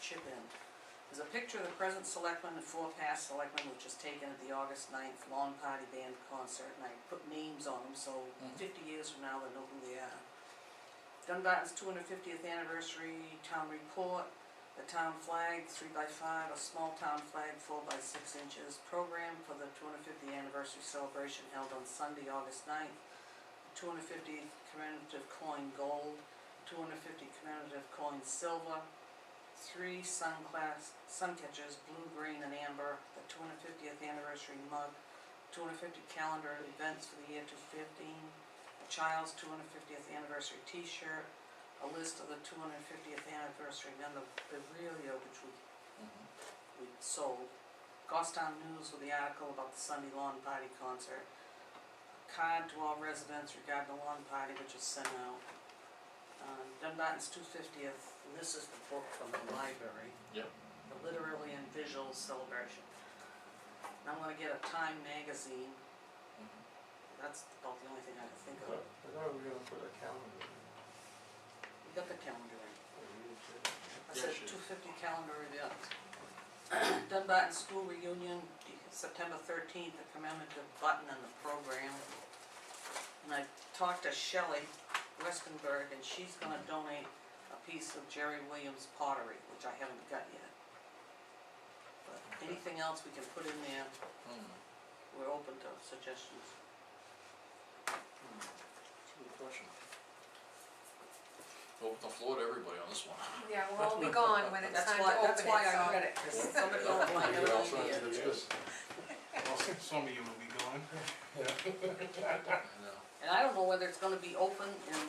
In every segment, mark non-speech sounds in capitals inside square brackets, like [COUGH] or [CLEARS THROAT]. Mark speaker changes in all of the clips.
Speaker 1: chip in. There's a picture of the present selectmen and four past selectmen, which was taken at the August 9th Lawn Party Band concert, and I put names on them, so
Speaker 2: Mhm.
Speaker 1: fifty years from now, they know who they are. Dunbarton's two hundred fiftieth anniversary town report, the town flag, three by five, a small town flag, four by six inches, program for the two hundred fiftieth anniversary celebration held on Sunday, August 9th. Two hundred fifty commemorative coin gold, two hundred fifty commemorative coin silver, three sun class, sun catchers, blue, green, and amber, the two hundred fiftieth anniversary mug, two hundred fifty calendar events for the year two fifteen, a child's two hundred fiftieth anniversary T-shirt, a list of the two hundred fiftieth anniversary memorabilia, which we,
Speaker 2: Mhm.
Speaker 1: we sold, Gostown News with the article about the Sunday lawn party concert, a card to all residents regarding the lawn party, which was sent out. Uh, Dunbarton's two fiftieth, this is the book from the library
Speaker 2: Yep.
Speaker 1: the literally and visual celebration. And I'm gonna get a Time magazine,
Speaker 2: Mhm.
Speaker 1: that's about the only thing I can think
Speaker 3: I
Speaker 1: of.
Speaker 3: thought we were gonna put a calendar in.
Speaker 1: We got the calendar in.
Speaker 3: Oh, you did too.
Speaker 1: I
Speaker 2: Yeah,
Speaker 1: said
Speaker 2: sure.
Speaker 1: two fifty calendar [CLEARS THROAT] event. Dunbarton School Reunion, September thirteenth, the commemorative button and the program. And I talked to Shelley Westenberg, and she's gonna donate a piece of Jerry Williams pottery, which I haven't got yet. But anything else we can put in there,
Speaker 2: Mhm.
Speaker 1: we're open to suggestions.
Speaker 2: Good question. Open the floor to everybody on this one.
Speaker 4: Yeah, we'll all be gone when it's
Speaker 1: That's
Speaker 4: time to
Speaker 1: why,
Speaker 4: open it,
Speaker 1: that's why I
Speaker 4: so-
Speaker 1: read it, 'cause
Speaker 4: [LAUGHS]
Speaker 1: somebody else might have
Speaker 2: Yeah, I'll
Speaker 1: an
Speaker 2: try
Speaker 1: idea.
Speaker 2: to do that.
Speaker 3: Yes.
Speaker 5: Well, some of you will be gone.
Speaker 2: [LAUGHS] I know.
Speaker 1: And I don't know whether it's gonna be open in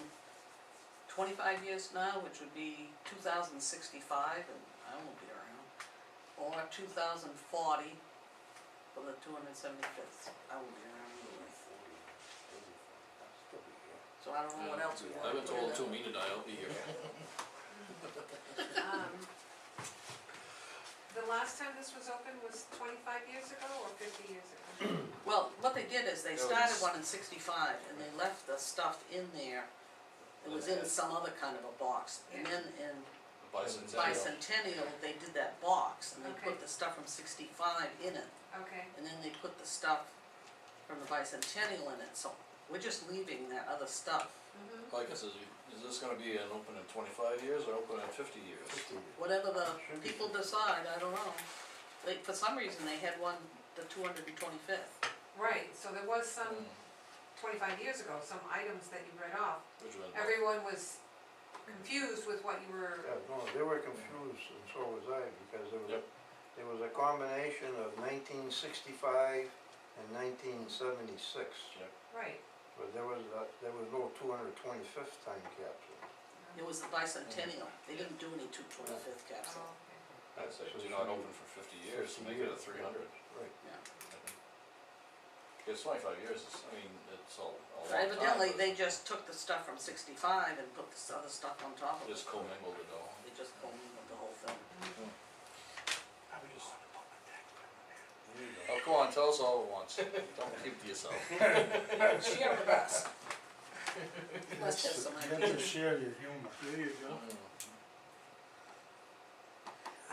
Speaker 1: twenty-five years now, which would be two thousand sixty-five, and I won't be around. Or two thousand forty, for the two hundred seventy-fifth, I won't be around anyway. So I don't know what
Speaker 2: Yeah.
Speaker 1: else we want.
Speaker 2: I've been told to me tonight, I'll be here.
Speaker 4: Um, The last time this was open was twenty-five years ago or fifty years
Speaker 1: [CLEARS THROAT]
Speaker 4: ago?
Speaker 1: Well, what they did is they
Speaker 2: That
Speaker 1: started
Speaker 2: was-
Speaker 1: one in sixty-five and they left the stuff in there. It was in some other kind of a box, and then in
Speaker 2: Bicentennial.
Speaker 1: bicentennial, they did that box, and they put
Speaker 4: Okay.
Speaker 1: the stuff from sixty-five in it,
Speaker 4: Okay,
Speaker 1: and then they put the stuff from the bicentennial in it, so we're just leaving that other stuff.
Speaker 4: mhm,
Speaker 2: Like I said, you- is this gonna be an open in twenty-five years or open in fifty years?
Speaker 1: Whatever the
Speaker 3: Should be.
Speaker 1: people decide, I don't know. They, for some reason, they had one, the two hundred and twenty-fifth.
Speaker 4: right, so there was some,
Speaker 1: Um,
Speaker 2: Mm,
Speaker 4: twenty-five years ago, some items that you read off.
Speaker 2: Which one?
Speaker 4: Everyone was confused with what you were,
Speaker 3: Yeah, no, they were confused and so was I, because there was a,
Speaker 2: Yep.
Speaker 3: there was a combination of nineteen sixty-five and nineteen seventy-six.
Speaker 4: right,
Speaker 3: But there was, a- there was no two hundred twenty-fifth time capsule.
Speaker 1: It was the bicentennial, they didn't do any two twenty-fifth
Speaker 4: oh,
Speaker 1: capsule.
Speaker 4: okay.
Speaker 2: I'd say, do not open for fifty years, make it a three hundred.
Speaker 3: Right.
Speaker 2: It's twenty-five years, it's, I mean, it's a, a long time.
Speaker 1: Evidently,
Speaker 2: but
Speaker 1: they just took the stuff from sixty-five and put this other stuff on top of it.
Speaker 2: Just commingled it all.
Speaker 1: They just commingled the whole thing.
Speaker 2: Oh, come on, tell us all at once, don't keep to [LAUGHS] yourself.
Speaker 1: Share with us. Let's have
Speaker 2: [LAUGHS]
Speaker 1: some
Speaker 5: You have to
Speaker 1: ideas.
Speaker 5: share your humor. There you go.
Speaker 2: Mm.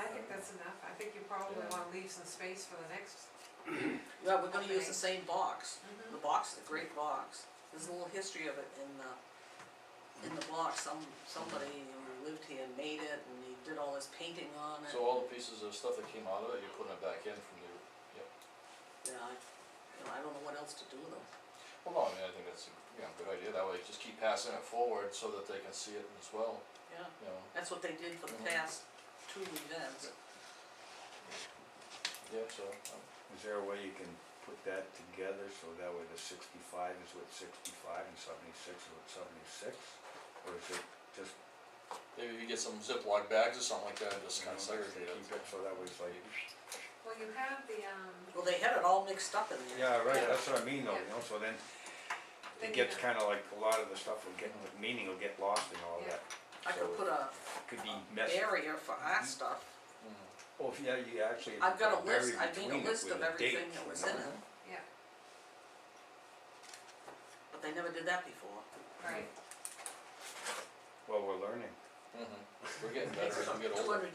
Speaker 4: I think that's enough, I think you probably
Speaker 2: Yeah.
Speaker 4: wanna leave some space for the next,
Speaker 1: Yeah, we're gonna use the same box.
Speaker 4: mhm,
Speaker 1: The box is a great box. There's a little history of it in the, in the box. Some, somebody who lived here made it and he did all his painting on it.
Speaker 2: So all the pieces of stuff that came out of it, you're putting it back in from the,
Speaker 1: Yeah, I, you know, I don't know what else to do with them.
Speaker 2: well, no, I mean, I think that's a, you know, good idea, that way just keep passing it forward so that they can see it as well,
Speaker 1: Yeah,
Speaker 2: you know,
Speaker 1: that's what they did for the
Speaker 6: Mm-hmm.
Speaker 2: Mhm.
Speaker 1: past two events.
Speaker 2: yeah, so, um,
Speaker 6: Is there a way you can put that together so that way the sixty-five is with sixty-five and seventy-six is with seventy-six? Or is it just,
Speaker 2: maybe you get some Ziploc bags or something like that, and just
Speaker 6: you know,
Speaker 2: kinda
Speaker 6: just
Speaker 2: segregate it.
Speaker 6: keep it so that way it's like.
Speaker 4: well, you have the, um,
Speaker 1: Well, they had it all mixed up in there.
Speaker 6: Yeah, right,
Speaker 4: Yeah.
Speaker 6: that's what I mean though, you
Speaker 4: Yeah.
Speaker 6: know, so then
Speaker 4: Then
Speaker 6: it
Speaker 4: you
Speaker 6: gets
Speaker 4: know.
Speaker 6: kinda like a lot of the stuff will get, the meaning will get lost in all
Speaker 4: Yeah.
Speaker 6: that.
Speaker 1: I could put a
Speaker 6: So it could be messy.
Speaker 1: barrier for our stuff.
Speaker 2: Mm.
Speaker 6: Well, if- yeah, you actually. if
Speaker 1: I've
Speaker 6: you
Speaker 1: got
Speaker 6: put
Speaker 1: a list,
Speaker 6: barrier
Speaker 1: I made
Speaker 6: between
Speaker 1: a
Speaker 6: it
Speaker 1: list
Speaker 6: with
Speaker 1: of
Speaker 6: a
Speaker 1: everything
Speaker 6: date
Speaker 1: that
Speaker 6: or
Speaker 1: was in it,
Speaker 6: number.
Speaker 4: yeah,
Speaker 1: but they never did that before.
Speaker 4: right.
Speaker 6: Well, we're learning.
Speaker 2: Mhm. Mm-hmm. We're getting better as we get older.
Speaker 1: Two hundred